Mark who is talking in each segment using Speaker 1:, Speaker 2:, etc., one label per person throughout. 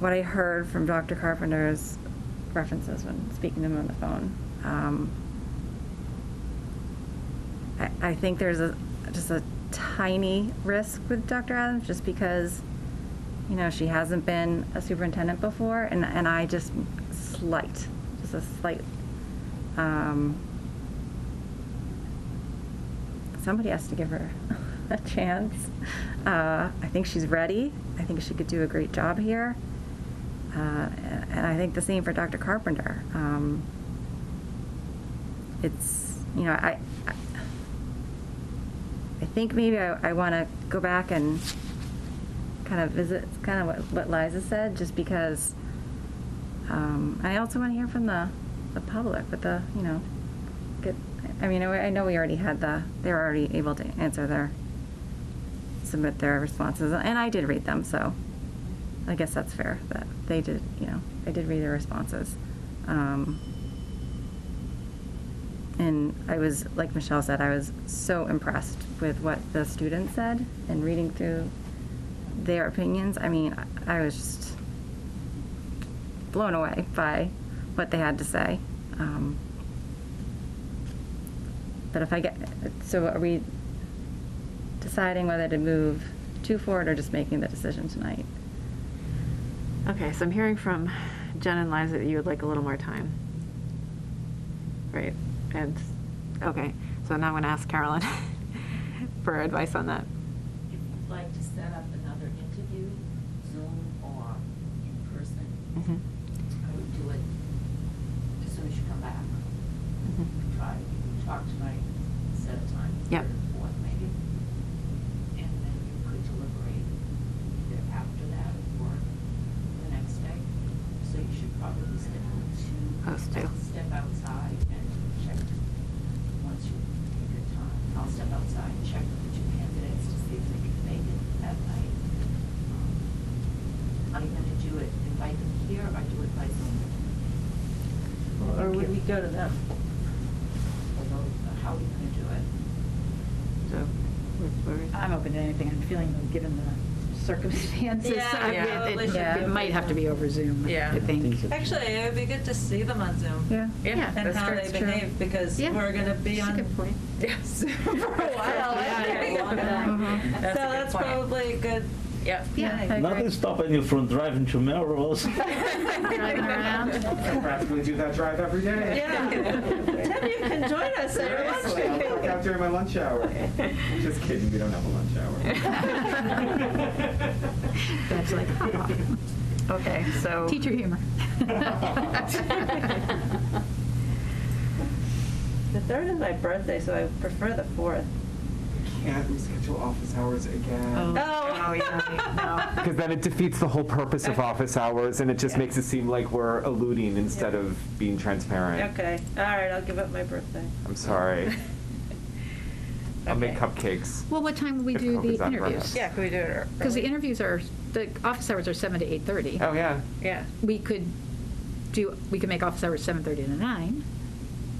Speaker 1: what I heard from Dr. Carpenter's references when speaking to him on the phone. Um, I, I think there's a, just a tiny risk with Dr. Adams, just because, you know, she hasn't been a superintendent before, and, and I just slight, just a slight, um, somebody has to give her a chance. Uh, I think she's ready. I think she could do a great job here. Uh, and and I think the same for Dr. Carpenter. Um, it's, you know, I, I, I think maybe I, I want to go back and kind of visit kind of what, what Liza said, just because um, I also want to hear from the, the public, but the, you know, get, I mean, I I know we already had the, they were already able to answer their, submit their responses, and I did read them, so I guess that's fair, that they did, you know, I did read their responses. Um, and I was, like Michelle said, I was so impressed with what the students said and reading through their opinions. I mean, I- I was just blown away by what they had to say. Um, but if I get, so are we deciding whether to move two forward or just making the decision tonight?
Speaker 2: Okay, so I'm hearing from Jen and Liza that you would like a little more time. Right, and, okay, so now I'm gonna ask Carolyn for advice on that.
Speaker 3: If you'd like to set up another interview, Zoom or in person, I
Speaker 4: Mm-hmm.
Speaker 3: would do it as soon as you come back.
Speaker 4: Mm-hmm.
Speaker 3: Try, you can talk tonight, set a time,
Speaker 2: Yep.
Speaker 3: third, or fourth maybe. And then you could deliberate either after that or the next day. So you should probably schedule two.
Speaker 2: Those two.
Speaker 3: I'll Step outside and check once you pick a time. I'll step outside and check with the two candidates to see if they can make it that night. Um, Are you gonna do it, invite them here or do it by Zoom? Or would we go to them? Although, how are we gonna do it?
Speaker 2: So, where- where is-
Speaker 5: I'm open to anything, I'm feeling them given the circumstances.
Speaker 6: Yeah,
Speaker 5: So, I mean,
Speaker 6: yeah.
Speaker 5: it-
Speaker 1: Yeah.
Speaker 5: It it might have to be over Zoom,
Speaker 6: Yeah.
Speaker 5: I think.
Speaker 6: Actually, it would be good to see them on Zoom.
Speaker 1: Yeah.
Speaker 2: Yeah,
Speaker 6: And
Speaker 2: that's
Speaker 6: how
Speaker 2: true.
Speaker 6: they behave, because
Speaker 2: Yeah.
Speaker 6: we're gonna be
Speaker 2: That's a
Speaker 6: on
Speaker 2: good point. Uh-huh.
Speaker 6: Zoom for a while.
Speaker 2: Yeah,
Speaker 6: I
Speaker 2: yeah,
Speaker 6: think.
Speaker 2: long
Speaker 3: Mm-hmm.
Speaker 1: time.
Speaker 6: So
Speaker 7: That's a good
Speaker 6: that's
Speaker 7: point.
Speaker 6: probably a good, yeah.
Speaker 1: I
Speaker 2: Yeah.
Speaker 1: agree.
Speaker 8: Nothing stopping you from driving to Melrose.
Speaker 2: Driving around.
Speaker 9: I practically do that drive every day.
Speaker 6: Yeah. Tim, you can join us at lunch.
Speaker 9: Seriously, I work out during my lunch hour. Just kidding, we don't have a lunch hour.
Speaker 2: That's like, okay, so.
Speaker 5: Teacher humor.
Speaker 7: The third is my birthday, so I prefer the fourth.
Speaker 9: Can't reschedule office hours
Speaker 10: Mm.
Speaker 9: again.
Speaker 2: Oh, yeah, no.
Speaker 10: Because then it defeats the whole purpose of office hours, and it just makes it seem like we're eluding instead
Speaker 7: Yeah.
Speaker 10: of being transparent.
Speaker 7: Okay, all right, I'll give up my birthday.
Speaker 10: I'm sorry. I'll make
Speaker 7: Okay.
Speaker 10: cupcakes.
Speaker 4: Well, what time will we
Speaker 10: If
Speaker 4: do
Speaker 10: COVID's
Speaker 4: the
Speaker 10: not around.
Speaker 4: interviews?
Speaker 6: Yeah, can we do it early?
Speaker 4: Because the interviews are, the office hours are 7 to 8:30.
Speaker 10: Oh yeah,
Speaker 6: Yeah.
Speaker 4: We could do, we could make office hours 7:30 to 9,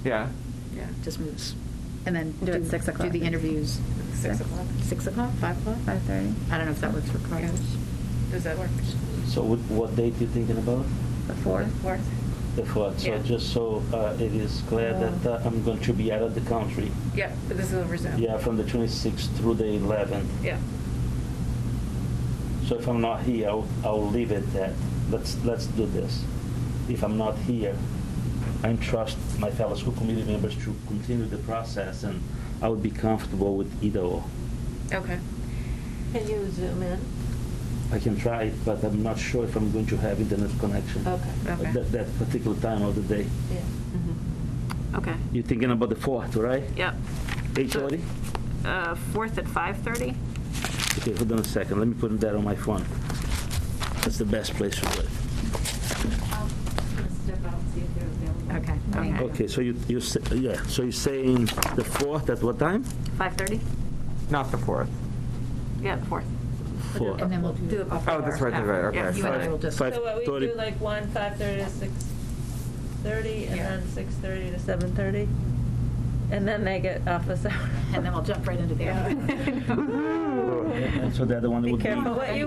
Speaker 10: yeah.
Speaker 6: Yeah.
Speaker 4: just moves, and then.
Speaker 1: Do it six o'clock.
Speaker 4: Do the interviews.
Speaker 6: Six o'clock.
Speaker 4: 6 o'clock, 5 o'clock?
Speaker 1: Five thirty,
Speaker 4: I don't know if that works for Carlos.
Speaker 6: Does that work?
Speaker 8: So what, what date you thinking about?
Speaker 1: the fourth.
Speaker 6: Work.
Speaker 8: The fourth, so
Speaker 6: Yeah.
Speaker 8: just so uh, it is clear that uh, I'm going to be out of the country.
Speaker 6: Yeah, but this is over Zoom.
Speaker 8: Yeah, from the 26th through the 11th.
Speaker 6: Yeah.
Speaker 8: So if I'm not here, I'll, I'll leave it at, let's, let's do this. If I'm not here, I trust my fellow school committee members to continue the process, and I would be comfortable with either or.
Speaker 6: Okay.
Speaker 3: Can you zoom in?
Speaker 8: I can try it, but I'm not sure if I'm going to have internet connection
Speaker 3: Okay.
Speaker 8: at that, that particular time of the day.
Speaker 3: Yeah.
Speaker 4: Mm-hmm.
Speaker 2: Okay,
Speaker 8: You're thinking about the fourth, right?
Speaker 2: yep.
Speaker 8: Eight thirty?
Speaker 2: Uh, Fourth at 5:30?
Speaker 8: Okay, hold on a second, let me put that on my phone. That's the best place for it.
Speaker 3: I'll step out and see if they're available.
Speaker 4: Okay.
Speaker 2: Okay.
Speaker 8: Okay, so you, you, s- yeah, so you're saying the fourth at what time?
Speaker 2: 5:30?
Speaker 10: Not the fourth.
Speaker 2: Yeah, the fourth.
Speaker 8: Four.
Speaker 4: And then we'll do.
Speaker 2: Do it before.
Speaker 10: Oh, that's right, that's
Speaker 2: after.
Speaker 10: right. Okay,
Speaker 2: Yeah, you and I
Speaker 10: sorry.
Speaker 2: will just-
Speaker 8: Five
Speaker 6: So what, we
Speaker 8: thirty.
Speaker 6: do like one, five thirty to six thirty, and
Speaker 2: Yeah.
Speaker 6: then six thirty to seven thirty? And then they get office hours.
Speaker 4: And then we'll jump right into the.
Speaker 6: Yeah.
Speaker 4: other one.
Speaker 8: And so the other one
Speaker 6: Be
Speaker 8: would be.
Speaker 6: careful what you